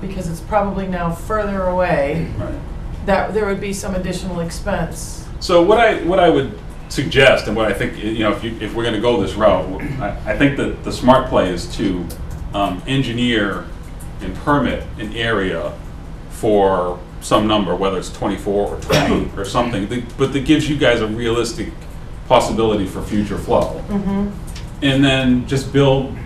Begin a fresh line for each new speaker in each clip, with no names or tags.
because it's probably now further away,
Right.
that there would be some additional expense.
So what I what I would suggest, and what I think you know, if you, if we're going to go this route, I, I think that the smart play is to um, engineer and permit an area for some number, whether it's 24 or 20 or something, that- but that gives you guys a realistic possibility for future flow, and then just build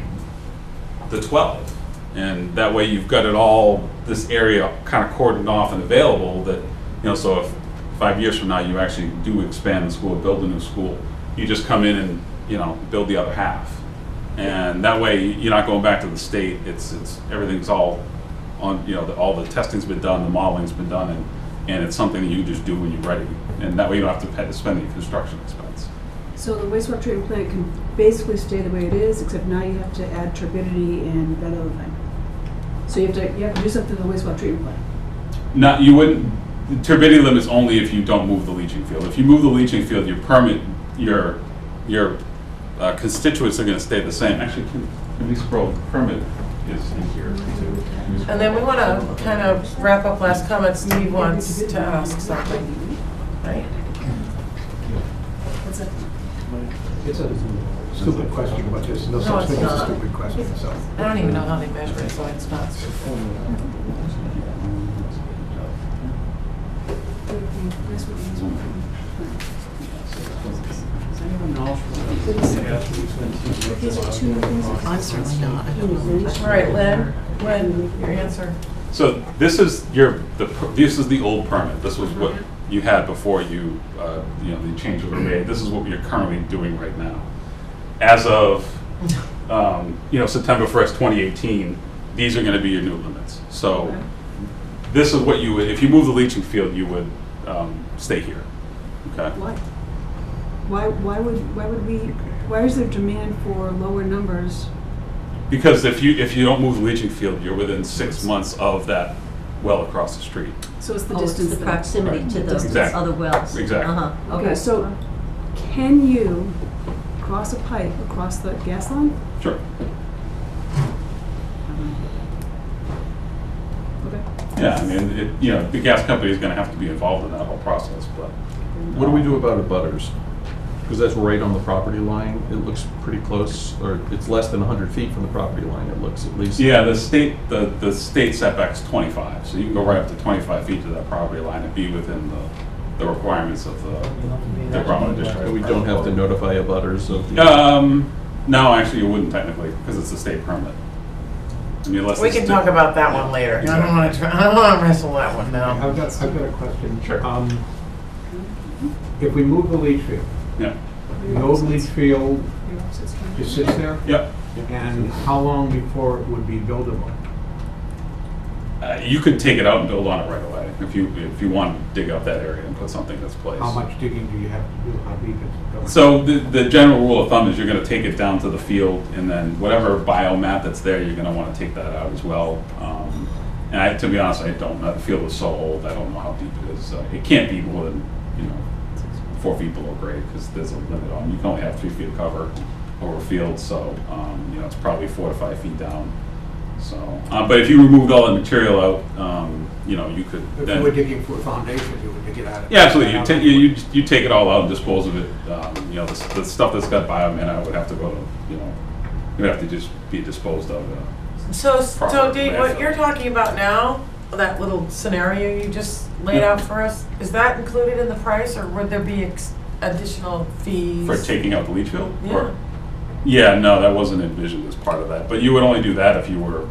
the 12. And that way you've got it all, this area kind of cordoned off and available that, you know, so if five years from now you actually do expand the school, build a new school, you just come in and, you know, build the other half. And that way you're not going back to the state, it's, it's, everything's all on, you know, the- all the testing's been done, the modeling's been done, and, and it's something that you just do when you're ready. And that way you don't have to pay- spend the construction expense.
So the wastewater treatment plant can basically stay the way it is, except now you have to add turbidity and that other thing. So you have to, you have to do something to the wastewater treatment plant.
Not, you wouldn't, the turbidity limit's only if you don't move the leaching field. If you move the leaching field, your permit, your, your uh, constituents are gonna stay the same. Actually, can, can we scroll, permit is in here too.
And then we want to kind of wrap up last comment, Steve wants to ask something, right?
That's it.
It's a stupid question, but there's no
No,
such
it's
thing as
not.
a stupid question, so.
I don't even know how they measure it, so it's not.
I'm certainly not. I don't know.
All right, Lynn, Lynn, your answer.
So this is your, the, per- this is the old permit. This was what you had before you, uh, you know, the changes were made. This is what you're currently doing right now. As of um, you know, September 1st, 2018, these are going to be your new limits. So this is what you would, if you move the leaching field, you would um, stay here. Okay?
Why? Why, why would, why would we, why is there demand for lower numbers?
Because if you, if you don't move the leaching field, you're within six months of that well across the street.
So it's the
Oh, it's
distance.
the
thing.
proximity to those
Exactly.
other wells.
Exactly.
Uh-huh,
Okay, so can you cross a pipe across the gas line?
Sure.
Okay.
Yeah, I mean, it, you know, the gas company is going to have to be involved in that whole process, but.
What do we do about abutters? Because that's right on the property line. It looks pretty close, or it's less than 100 feet from the property line, it looks at least.
Yeah, the state, the, the state setback's 25, so you can go right up to 25 feet to that property line and be within the, the requirements of the, the Bromwood District.
And we don't have to notify abutters of. the-
Um, no, actually, you wouldn't technically, because it's a state permit. I mean, Unless
We
it's
can
di-
talk about that one later. I don't want to, I don't want to wrestle that one now.
I've got, I've got a question.
Sure.
Um, If we move the leach field,
Yeah,
the old leach field
Your opposite's trying to-
just sits there,
yeah.
and how long before it would be buildable?
Uh, you could take it out and build on it right away if you if you want to dig up that area and put something that's placed.
How much digging do you have to do, how deep is it going?
So the, the general rule of thumb is you're going to take it down to the field, and then whatever biomap that's there, you're going to want to take that out as well. Um, and I, to be honest, I don't know. The field is so old, I don't know how deep it is. Uh, it can't be more than you know four feet below grade because there's a limit on. You can only have three feet of cover over a field, so um, you know it's probably four to five feet down. So, uh, but if you removed all that material out, um, you know you could.
If you were digging for a foundation, you would dig it out.
Yeah, absolutely. You take, you, you, you take it all out and dispose of it. Um, you know, the, s- the stuff that's got bioman, I would have to go to, you know, it would have to just be disposed of. Uh,
So, so
Proper
Dave,
landfill.
what you're talking about now, that little scenario you just laid
Yeah.
out for us, is that included in the price or would there be ex- additional fees?
for taking out the leach field?
Yeah.
Or, yeah, no, that wasn't envisioned as part of that. But you would only do that if you were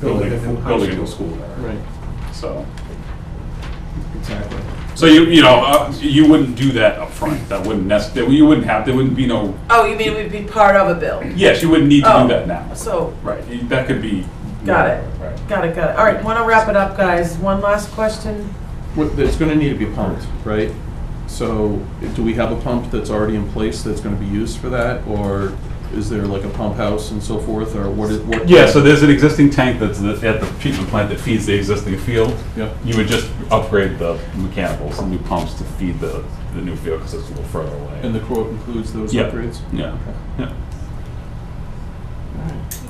building,
Building a new high
building a new
school.
school there.
Right,
So,
Exactly.
so you, you know, uh, you wouldn't do that up front. That wouldn't necessarily, you wouldn't have, there wouldn't be no,
Oh, you mean we'd be part of a bill?
yes, you wouldn't need to
Oh.
do that now.
So,
Right, you- that could be.
Got it.
Right.
got it, got it. All right, want to wrap it up, guys. One last question.
What- it's gonna need to be pumped, right? So do we have a pump that's already in place that's gonna be used for that? Or is there like a pump house and so forth, or what is? what-
Yeah, so there's an existing tank that's th- at the treatment plant that feeds the existing field.
Yeah.
You would just upgrade the mechanicals, the new pumps to feed the, the new field because it's a little further away.
And the quote includes those
Yeah.
upgrades?
Yeah, yeah.
All right.